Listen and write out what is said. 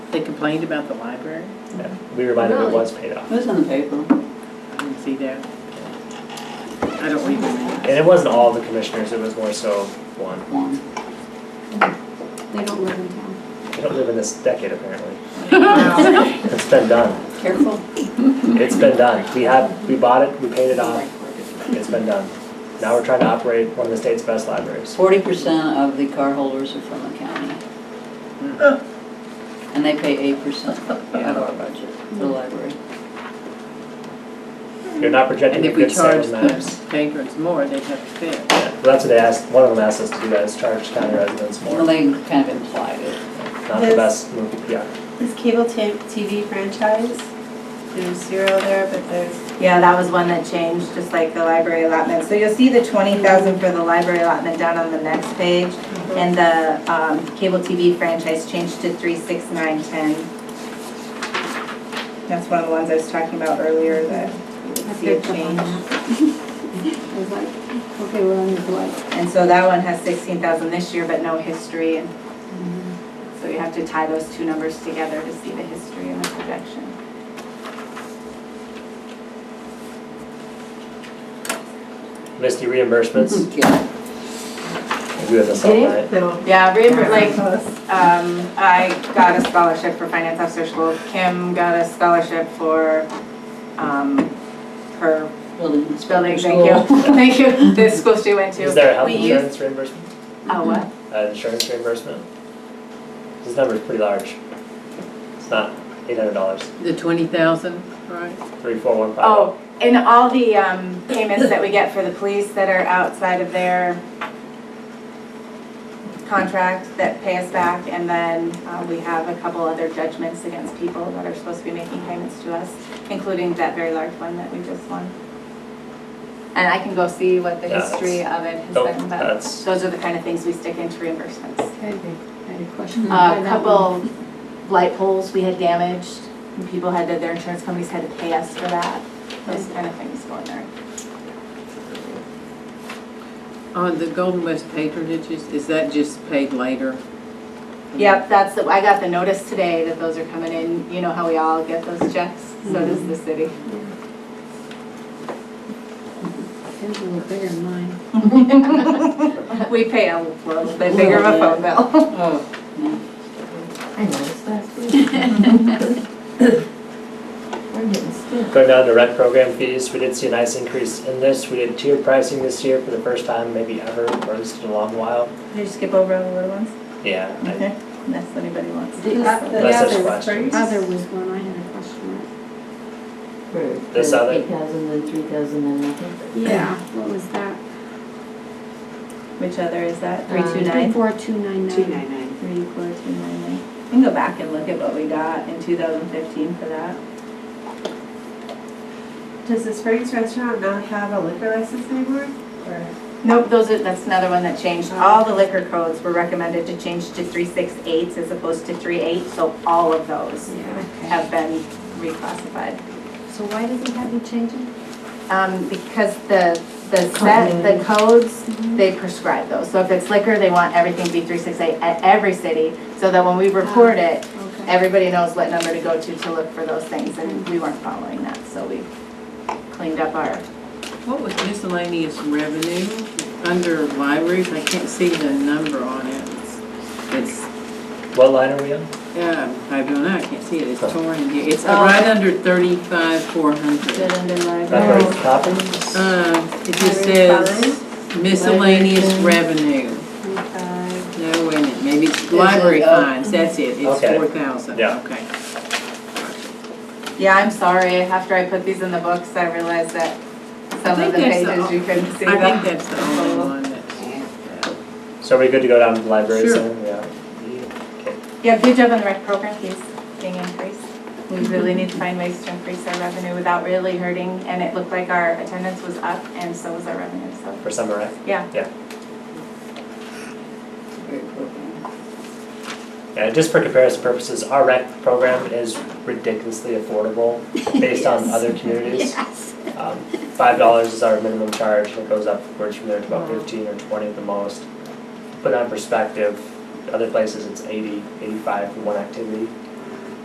They complained about the library? Yeah, We were reminded it Really? was paid off. It was in the paper. I didn't see that. I don't read the And it wasn't all the commissioners, it was more so one. One. They don't live in town. They don't live in this decade apparently. Wow. It's been done. Careful. It's been done. We have, we bought it, we paid it uh, off. It's been done. Now we're trying to operate one of the state's best libraries. Forty percent of the car holders are from the county. And they pay eight percent of our budget for the library. You're not And projecting a if we good charge sales map. the patrons more, they'd have to pay. it. Yeah, Well, that's what they asked, one of them asked us to do that, is charge county residents more. Well, they kind of implied it. Not the best move, yeah. This cable ta- TV franchise, there's zero there, but there's. Yeah, that was one that changed, just like the library allotment. So you'll see the twenty thousand for the library allotment down on the next page. And the, um, cable TV franchise changed to three, six, nine, ten. That's one of the ones I was talking about earlier that you would see a change. I was like, okay, we're on the blood. And so that one has sixteen thousand this year, but no history. And So you have to tie those two numbers together to see the history and the projection. Misty reimbursements, Mm-hmm. Yeah. we have this all night. Yeah, reimburse, like, um, I got a scholarship for finance officer school. Kim got a scholarship for, um, her Buildings. building, thank you, thank you, this school she went to. Is there a health We used- insurance reimbursement, Oh, what? uh, insurance reimbursement? This number's pretty large. It's not eight hundred dollars, The twenty thousand, right? three, four, one, five. Oh, and all the, um, payments that we get for the police that are outside of their contract that pay us back, and then, uh, we have a couple other judgments against people that are supposed to be making payments to us, including that very large one that we just won. And I can go see what the Yeah, history of it has Nope, been about. Oh, that's, Those are the kind of things we stick into reimbursements. I had a- I had a question. A about that one. couple light poles we had damaged, and people had, to- their insurance companies had to pay us for that, those kind of things go in there. On the Golden West patronages, is that just paid later? Yep, that's, the- I got the notice today that those are coming in, you know how we all get those checks, so does the city. His were bigger than mine. We pay a little bit bigger of a phone bill. Oh, I noticed last week. We're getting stiff. going down to rent program fees, we did see a nice increase in this. We did tiered pricing this year for the first time maybe ever, or at least in a long while. Did you skip over all the little ones? Yeah, I- Unless anybody wants. The o- the Unless there's other- questions. Other was one I had a question For- This for other- 8,000, then 3,000, then nothing. at. Yeah, what was that? Which other is that, Three four two nine nine. Two nine nine. Three, four, two, nine, nine. You can go back and look at what we got in two thousand fifteen for that. Does the Springs restaurant not have a liquor license anymore? Oh. Or Nope, those are, that's another one that changed. All the liquor codes were recommended to change to three six eights as opposed to three eight, so all of those Yeah. have been reclassified. So why does it have you changing? Um, because the, the set, the codes, Mm-hmm. they prescribe those. So if it's liquor, they want everything to be three six eight at every city, so that when we report Ah. it, Okay. everybody knows what number to go to to look for those things, and we weren't following that, so we cleaned up our what was miscellaneous revenue under libraries? I can't see the number on it. It's- It's, what line are we on? yeah, I don't know, I can't see it, it's torn in here. It's Oh. right under thirty-five, four hundred. good under Oh. Library library. copies? Uh, it just Library says miscellaneous revenue. No, wait a minute, maybe it's it, library oh. fines, that's it, it's Okay. four thousand, Yeah. okay. Yeah, I'm sorry, after I put these in the books, I realized that I some think of the that's the- pages you couldn't see. I think them. that's the only one that's. So are we good to go down to libraries Sure. then? Yeah. Yeah, good job on the rec program fees being increased. We really need to find ways to increase our revenue without really hurting, and it looked like our attendance was up and so was our revenue, so, For summer rec? yeah. Very appropriate. Yeah, just for comparison purposes, our rec program is ridiculously affordable based on other communities. Yes. Um, Five dollars is our minimum charge, and it goes upwards from there to about Wow. fifteen or twenty at the most. Put that in perspective, other places it's eighty, eighty-five for one activity.